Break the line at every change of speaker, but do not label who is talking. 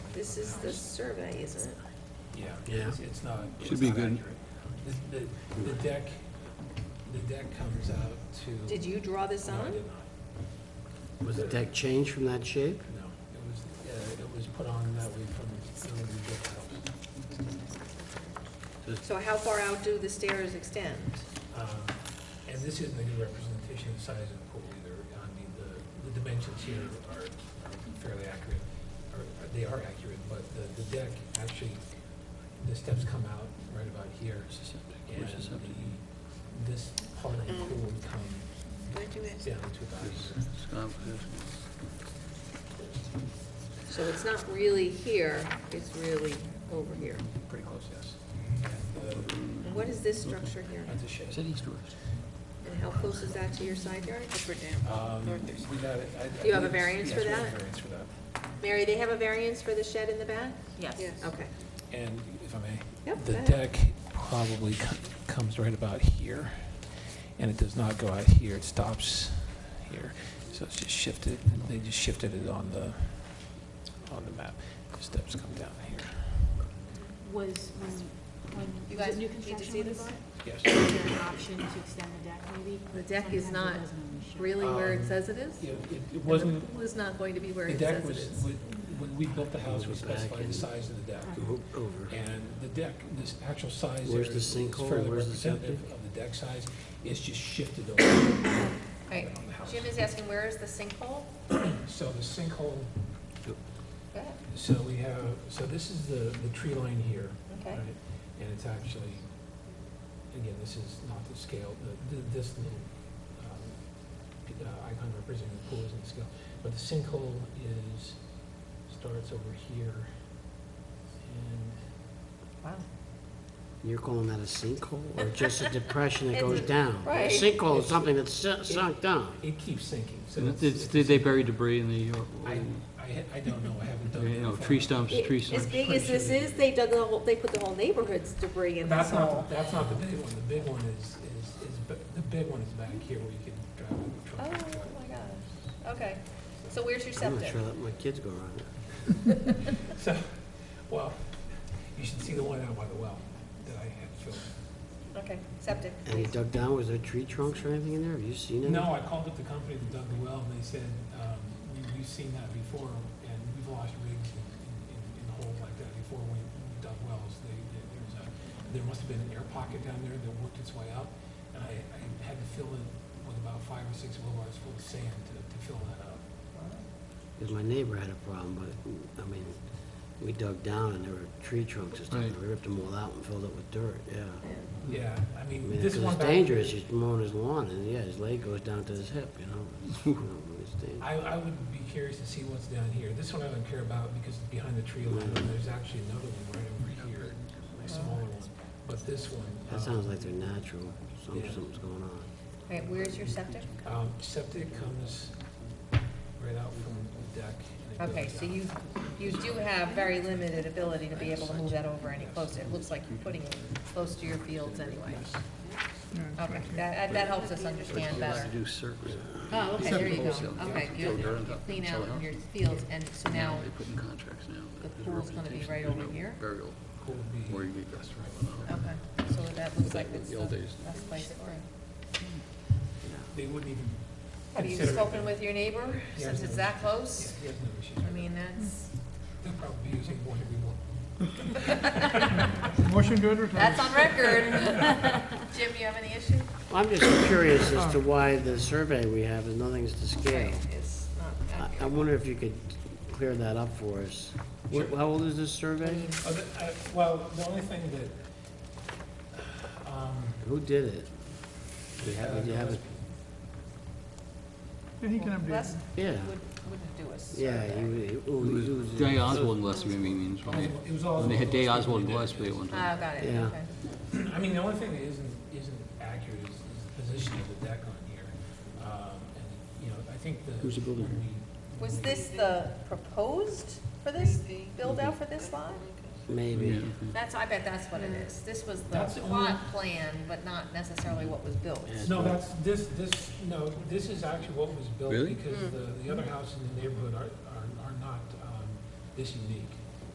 This is the survey, isn't it?
Yeah,
Yeah.
it's, it's not,
Should
it's
be
not
good.
accurate. The, the- the deck, the deck comes out to.
Did you draw this
No, I
on?
did not,
Was the deck changed from that shape?
no. It was, uh, it was put on that way from, from the brick house.
So how far out do the stairs extend?
Um, And this isn't a good representation of the size of the pool either. I mean, the, the dimensions here are are fairly accurate, or or they are accurate, but the, the deck, actually, the steps come out right about here. And
Where's the septic?
the- this part of the pool would come down to about here.
So it's not really here, it's really over here.
Pretty close, yes.
And what is this structure here?
uh, That's a shed.
And how close is that to your side yard?
Um, we got it. I- I
Do you have a
believe
variance
it's-
for
yes, we have a
that?
variance for that.
Mary, they have a variance for the shed in the back?
Yes.
Okay.
And if I may?
Yep,
The
go ahead.
deck probably co- comes right about here, and it does not go out here, it stops here. So it's just shifted, they just shifted it on the, on the map. The steps come down here.
was when, when.
You
was it
guys
new
need to
construction
see
when
this
it's-
Yes.
Is there an option to extend the deck maybe?
The deck is
Sometimes it
not
doesn't always show.
Really where it
Um,
says it is?
Yeah, It it
And
wasn't,
The pool is not going to be where
the
it
deck
says it
was,
is.
when when we built the house, we
Move it back
specified the
and-
size of the deck.
Go Over.
And the deck, this actual size there
Where's the
is
sinkhole?
fairly
Where's the
representative
septic?
of the deck size. It's just shifted over
Right.
on the house.
Jim is asking, where is the sinkhole?
So the sinkhole
Go ahead.
So we have, so this is the, the tree line here.
Okay.
right? And it's actually, again, this is not the scale, the- the- this little um, p- uh, icon representing the pool isn't the scale. But the sinkhole is, starts over here. And
Wow.
You're calling that a sinkhole or just a depression that goes
It's-
down? A
right.
sinkhole is something that's su- sunk down.
it keeps sinking, so
Did
that's.
did they bury debris in the,
I, I ha- I don't know, I haven't
uh,
done.
you know,
it.
tree stumps, tree
As
stumps?
big as this is, they dug the whole, they put the whole neighborhood's debris in this
That's
hole.
not, that's not the big one. The big one is, is, is, ba- the big one is back here where you can drive a
Oh, my
truck.
gosh. Okay. So where's your
I'm not
septic?
sure that my kids go around it.
So, well, you should see the one out by the well that I had filled.
Okay, septic.
And he dug down, was there tree trunks or anything in there? Have you seen any?
No, I called up the company that dug the well, and they said, um, we, we've seen that before, and we've lost rigs in, in- in, in holes like that before when we dug wells. They, they- there's a, there must have been an air pocket down there that worked its way out, and I, I had to fill it with about five or six wheelbarrows full of sand to, to fill that up.
Because my neighbor had a problem, but, I mean, we dug down and there were tree trunks and stuff.
Right.
We ripped them all out and filled it with dirt, yeah.
Yeah, I
I
mean,
mean,
this
because
one
Hmm. it's
back.
dangerous, he's mowing his lawn and, yeah, his leg goes down to his hip, you know? It's- you know, It's dangerous.
I, I would be curious to see what's down here. This one I don't care about because it's behind the tree line, and there's actually another one right over here, a smaller one. But this one. um,
That sounds like they're natural, Some-
Yeah.
something's going on.
All right, where's your septic?
Um, septic comes right out from the deck. and it
Okay,
goes
so
down.
you, you do have very limited ability to be able to move that over any closer. It looks like you're putting it close to your fields anyway. Okay, that, that helps us understand better.
do circles.
Oh, okay, there you go.
Septic.
Okay,
Fill dirt
you
on top,
clean
fill
out
it up.
your fields, and so now
putting contracts now.
the pool's gonna be right over here.
Burial,
Cool would be-
get
that's right.
Okay, so that looks like it's
The old
the
days.
best place for it.
They wouldn't even.
Have you
consider it.
spoken with your neighbor,
Yeah,
since it's that
Yeah,
close?
he has no issues
I
with it.
mean, that's,
They'll probably be using one every one.
that's on record. Jim, you have any issue?
I'm just curious as to why the survey we have is nothing's to scale.
It's
I
not
I
accurate.
wonder if you could clear that up for us. Wh- How old is this survey?
Oh, the- uh, Well, the only thing that, um.
Who did it? Do you
uh,
have, do you have it?
And he can
Les
update.
Yeah,
would, wouldn't do us.
yeah. you- you- ooh, you-
Day Oswald and Gillespie, I mean, it's when
Oswald- It was
they- when they had Day Oswald and
Oswald.
Gillespie at one
Ah,
time.
got it,
Yeah.
okay.
I mean, the only thing that isn't, isn't accurate is is the position of the deck on here. Um, And, you know, I think the.
Who's the builder?
when we-
Was this the proposed for this, build out for this lot?
Maybe.
That's, I bet that's what it is. This was the
That's the only-
plot plan, but not necessarily what was built.
Yeah.
No, that's, this, this, no, this is actually what was built
Really?
Hmm.
because the, the other houses in the neighborhood are, are are not um, this unique.